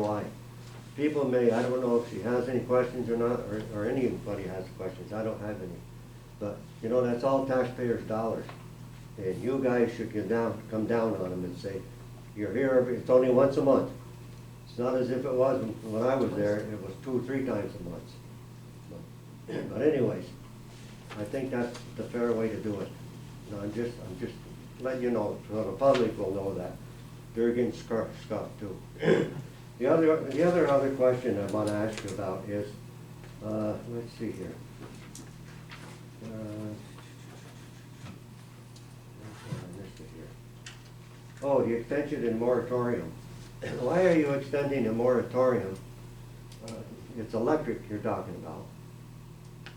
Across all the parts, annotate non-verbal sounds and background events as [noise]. Why? People may, I don't know if she has any questions or not, or, or anybody has questions, I don't have any. But, you know, that's all taxpayers' dollars, and you guys should get down, come down on them and say, you're here, every- it's only once a month. It's not as if it was when I was there, it was two, three times a month. But [clears throat] anyways, I think that's the fair way to do it. No, I'm just, I'm just letting you know, so the public will know that. They're getting scuffed, scuffed too. The other, the other, other question I wanna ask you about is, uh, let's see here. Uh, I missed it here. Oh, the extension and moratorium. [coughs] Why are you extending the moratorium? Uh, It's electric you're talking about.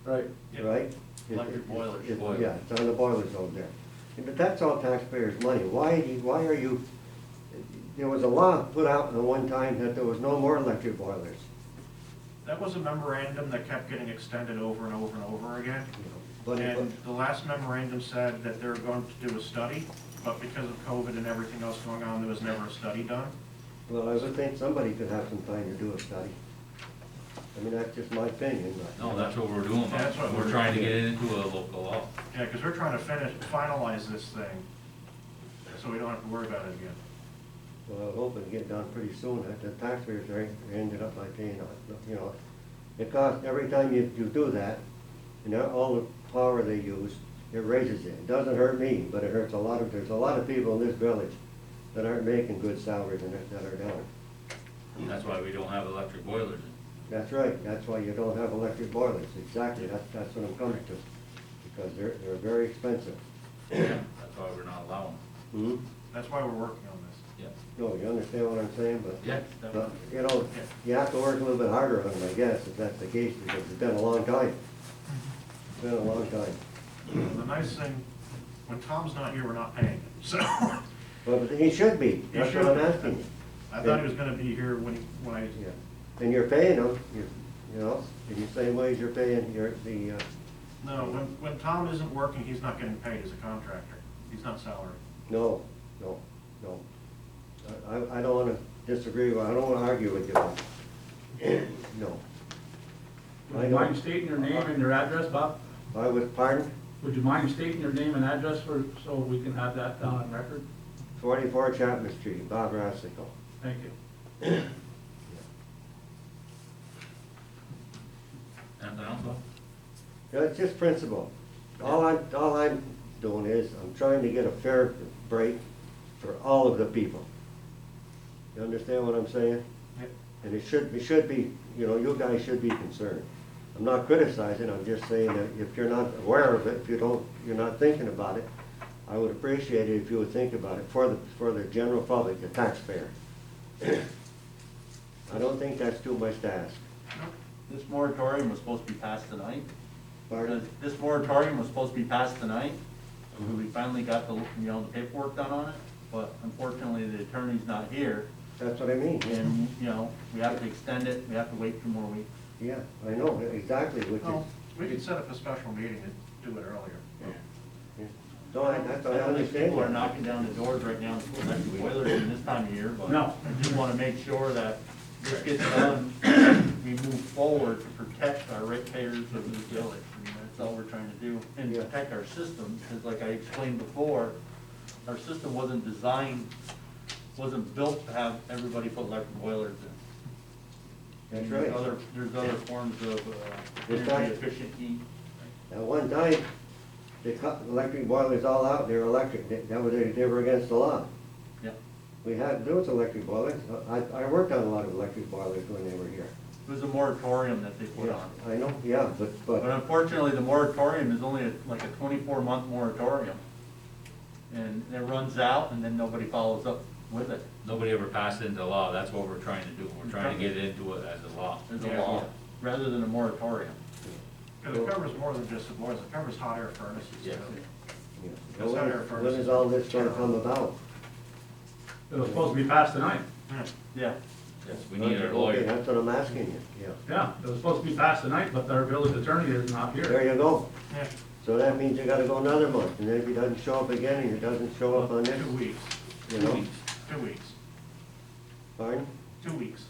Right. Yep. right? Electric boilers. It- Boilers. Yeah, it's on the boilers over there. And But that's all taxpayers' money. Why, do you- why are you, there was a law put out at one time that there was no more electric boilers. That was a memorandum that kept getting extended over and over and over again. you know. But it- And the last memorandum said that they're going to do a study, but because of COVID and everything else going on, there was never a study done. Well, I would think somebody could have some time to do a study. I mean, that's just my opinion, but. No, that's what we're doing, That's what we're we're trying to doing. get it into a local law. Yeah, because we're trying to finish, finalize this thing, so we don't have to worry about it again. Well, I hope it'll get done pretty soon. That The taxpayers are, ended up by paying, uh, you know, it costs, every time you, you do that, you know, all the power they use, it raises it. It doesn't hurt me, but it hurts a lot of, there's a lot of people in this village that aren't making good salaries and that- that are down. And that's why we don't have electric boilers. That's right, that's why you don't have electric boilers, exactly, that's, that's what I'm coming to, because they're, they're very expensive. Yeah, that's why we're not allowing, Hmm? That's why we're working on this. yeah. No, you understand what I'm saying, but. Yeah. But, you know, you have to work a little bit harder on them, I guess, if that's the case, because it's been a long time. It's been a long time. The nice thing, when Tom's not here, we're not paying him, so. But he should be, He that's should- what I'm asking you. I thought he was gonna be here when, he- when I Yeah. And you're paying them, you, you know, in the same way as you're paying your, the, uh, No, when, when Tom isn't working, he's not getting paid as a contractor. He's not salaried. no, no, no. I- I, I don't wanna disagree, with- I don't wanna argue with you. [clears throat] No. Would you mind stating your name and your address, Bob? I was, pardon, Would you mind stating your name and address for, so we can have that down on record? forty-four Chapman Street, Bob Rassico. Thank you. Anything else, Bob? Yeah, it's just principle. All I, all I'm doing is, I'm trying to get a fair break for all of the people. You understand what I'm saying? And it should, it should be, you know, you guys should be concerned. I'm not criticizing, I'm just saying that if you're not aware of it, if you don't, you're not thinking about it, I would appreciate it if you would think about it for the, for the general public, the taxpayer. [clears throat] I don't think that's too much to ask. This moratorium was supposed to be passed tonight. Pardon? This moratorium was supposed to be passed tonight. We finally got the, you know, the paperwork done on it, but unfortunately, the attorney's not here. That's what I mean. And, you know, we have to extend it, we have to wait two more weeks. Yeah, I know, exactly, which Well, is, Oh, we could set up a special meeting and do it earlier. no, I, that's, I don't think understand. People are knocking down the doors right now, to electric boilers in this time of year, but No. I just want to make sure that this gets done, we move forward to protect our ratepayers of this village. And that's all we're trying to do, and Yeah. protect our system, because like I explained before, our system wasn't designed, wasn't built to have everybody put electric boilers in. That's And there's right. other- There's other forms of uh, It's not- energy efficient heat. At one time, they cut electric boilers all out, they were electric, They- that was, they they were against the law. Yep. We had, there was electric boilers, I, I worked on a lot of electric boilers when they were here. It was a moratorium that they put Yeah, on. I know, yeah, but, But uh, but, unfortunately, the moratorium is only a- like a twenty-four month moratorium. And it runs out and then nobody follows up with it. Nobody ever passed it into law, that's what we're trying to do, we're trying to get it into it as a law. There's a law, rather than a moratorium. Because it covers more than just the boilers, it covers hot air furnaces. too. Yeah. you know, That's when under is- first- when is all this gonna come about? It was supposed to be passed tonight. Yeah. Yeah, Yes, we need our Okay, lawyer. That's what I'm asking you, yeah. Yeah, it was supposed to be passed tonight, but our village attorney is not There here. you go, Yeah, so that means you gotta go another month, and then if he doesn't show up again, and he doesn't show up on two this, weeks, you know, Weeks. two weeks, fine? two weeks.